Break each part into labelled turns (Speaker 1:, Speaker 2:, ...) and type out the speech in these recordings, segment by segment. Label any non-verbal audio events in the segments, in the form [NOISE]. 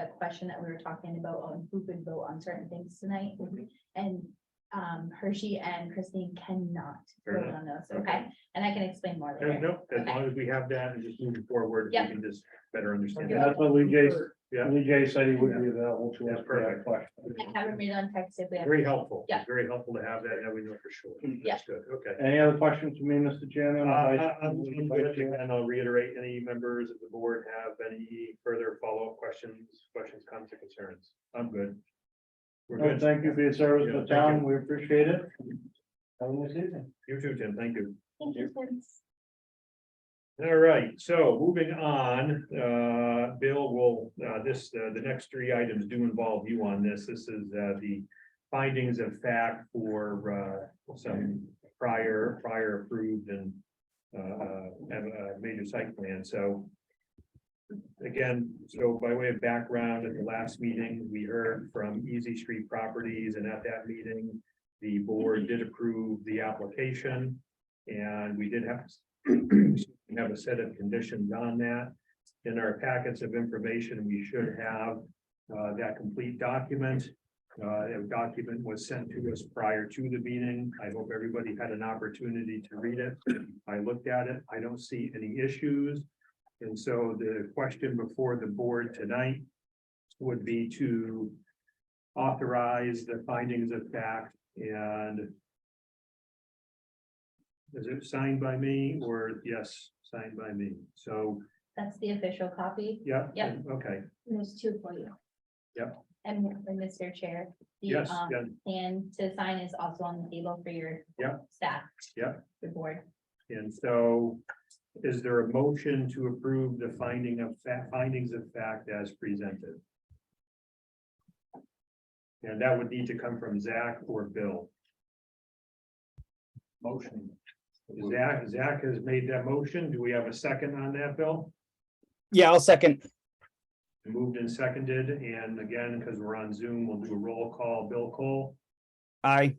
Speaker 1: discussion that we were talking about on who could vote on certain things tonight.
Speaker 2: Mm-hmm.
Speaker 1: And um Hershey and Christine cannot
Speaker 2: Fair
Speaker 1: vote
Speaker 2: enough.
Speaker 1: on those, okay? And I can explain more
Speaker 2: No,
Speaker 1: later.
Speaker 2: no, as long as we have that and just moving forward, we
Speaker 1: Yeah.
Speaker 2: can just better understand.
Speaker 3: Yeah,
Speaker 2: that.
Speaker 3: that's what Lee J,
Speaker 2: Yeah.
Speaker 3: Lee J said he would be available to us.
Speaker 2: That's perfect.
Speaker 3: for that
Speaker 1: I
Speaker 3: question.
Speaker 1: haven't read on text if we have.
Speaker 2: Very helpful.
Speaker 1: Yeah.
Speaker 2: Very helpful to have that, now we know for sure.
Speaker 3: Mm.
Speaker 1: Yeah.
Speaker 2: That's good, okay.
Speaker 3: Any other questions for me, Mr. Chairman?
Speaker 2: Uh, I- I'm- I'm good, And I'll reiterate, any members of the board have any further follow-up questions, questions, comments, or concerns? I'm good. We're
Speaker 3: No,
Speaker 2: good.
Speaker 3: Thank you for your service to the
Speaker 2: Yeah, thank
Speaker 3: town. We appreciate it. Have a nice evening.
Speaker 2: You too, Tim, thank you.
Speaker 1: Thank you, friends.
Speaker 2: All right, so moving on, uh, Bill will, uh, this, uh, the next three items do involve you on this. This is, uh, the findings of fact for, uh, some prior, prior approved and, uh, uh, and, uh, major site plan, so. Again, so by way of background, at the last meeting, we heard from Easy Street Properties, and at that meeting, the board did approve the application. And we did have [CLEARS THROAT] we have a set of conditions on that. In our packets of information, we should have uh, that complete document. Uh, That document was sent to us prior to the meeting. I hope everybody had an opportunity to read it. I looked at it. I don't see any issues. And so the question before the board tonight would be to authorize the findings of fact and is it signed by me or yes, signed by me? So,
Speaker 1: That's the official copy.
Speaker 2: yeah.
Speaker 1: Yeah.
Speaker 2: Okay,
Speaker 1: And There's two for you.
Speaker 2: Yep.
Speaker 1: And and Mr. Chair, the
Speaker 2: yes,
Speaker 1: um
Speaker 2: yeah,
Speaker 1: and to sign is also on the table for your
Speaker 2: Yep.
Speaker 1: staff.
Speaker 2: Yep.
Speaker 1: The board.
Speaker 2: and so is there a motion to approve the finding of fa- findings of fact as presented? And that would need to come from Zach or Bill.
Speaker 3: Motion.
Speaker 2: Zach, Zach has made that motion. Do we have a second on that, Bill?
Speaker 4: Yeah, I'll second.
Speaker 2: Moved and seconded, and again, because we're on Zoom, we'll do a roll call. Bill Cole,
Speaker 4: Aye.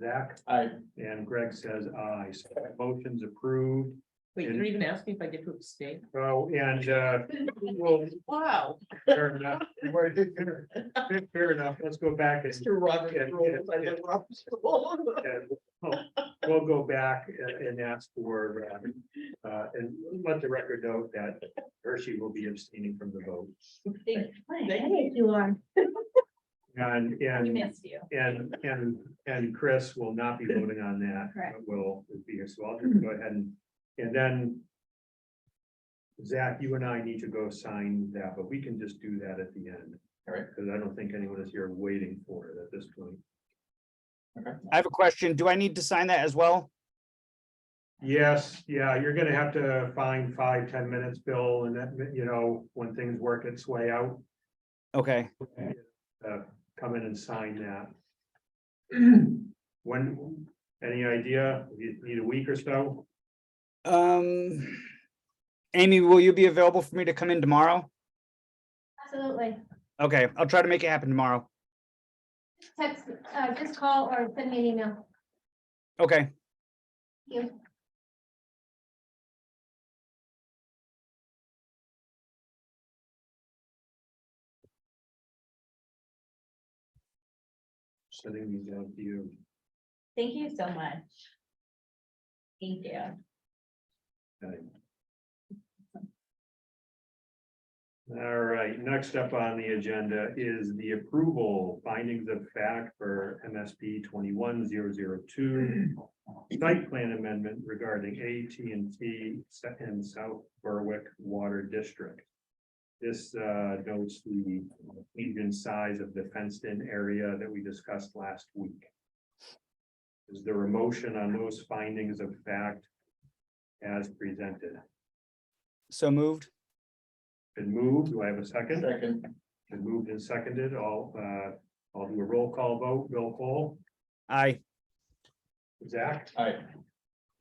Speaker 2: Zach,
Speaker 3: Aye.
Speaker 2: and Greg says aye. So that motion's approved.
Speaker 5: Wait, you're even asking if I get to abstain?
Speaker 2: Oh, and uh, we'll
Speaker 5: Wow.
Speaker 2: Fair
Speaker 5: [LAUGHS]
Speaker 2: enough. Well, fair- Fair enough. Let's go back and,
Speaker 5: Mr. Robert
Speaker 2: Yeah, yeah,
Speaker 5: rules, I
Speaker 2: yeah.
Speaker 5: love Robert's rules.
Speaker 2: and we'll- we'll go back and and ask for, uh, uh, and let the record note that Hershey will be abstaining from the vote.
Speaker 1: Thank
Speaker 5: Thank
Speaker 1: you are.
Speaker 2: And,
Speaker 1: We
Speaker 2: and,
Speaker 1: missed
Speaker 2: [CLEARS THROAT]
Speaker 1: you.
Speaker 2: and, and, and Chris will not be voting on that.
Speaker 1: Correct.
Speaker 2: but Will be here, so I'll just go ahead and, and then Zach, you and I need to go sign that, but we can just do that at the end. All right. Because I don't think anyone is here waiting for it at this point.
Speaker 4: I have a question. Do I need to sign that as well?
Speaker 2: Yes, yeah, you're gonna have to find five, ten minutes, Bill, and that, you know, when things work its way out, uh,
Speaker 4: Okay,
Speaker 2: come in and sign that. When, any idea, you need a week or so?
Speaker 4: um. Amy, will you be available for me to come in tomorrow?
Speaker 6: Absolutely.
Speaker 4: Okay, I'll try to make it happen tomorrow.
Speaker 6: Text, uh, just call or send me an email.
Speaker 4: Okay,
Speaker 6: Thank You.
Speaker 2: Sending these out to you.
Speaker 1: Thank you so much. Thank you.
Speaker 2: Okay. All right, next up on the agenda is the approval findings of fact for MSP twenty-one zero zero two. Site plan amendment regarding AT&T and South Berwick Water District. This uh, notes the median size of the fenced-in area that we discussed last week. Is there a motion on those findings of fact as presented.
Speaker 4: so moved.
Speaker 2: Been moved, do I have a second?
Speaker 3: Second.
Speaker 2: Been moved and seconded, I'll, uh, I'll do a roll call vote, Bill Cole,
Speaker 4: Aye.
Speaker 2: Zach,
Speaker 3: Aye.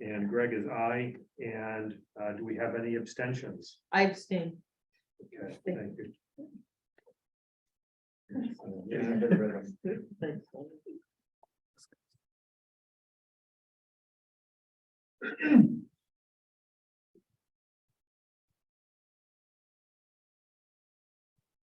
Speaker 2: and Greg is I, and, uh, do we have any abstentions?
Speaker 5: I abstain.
Speaker 2: Okay, thank you.
Speaker 5: Thanks.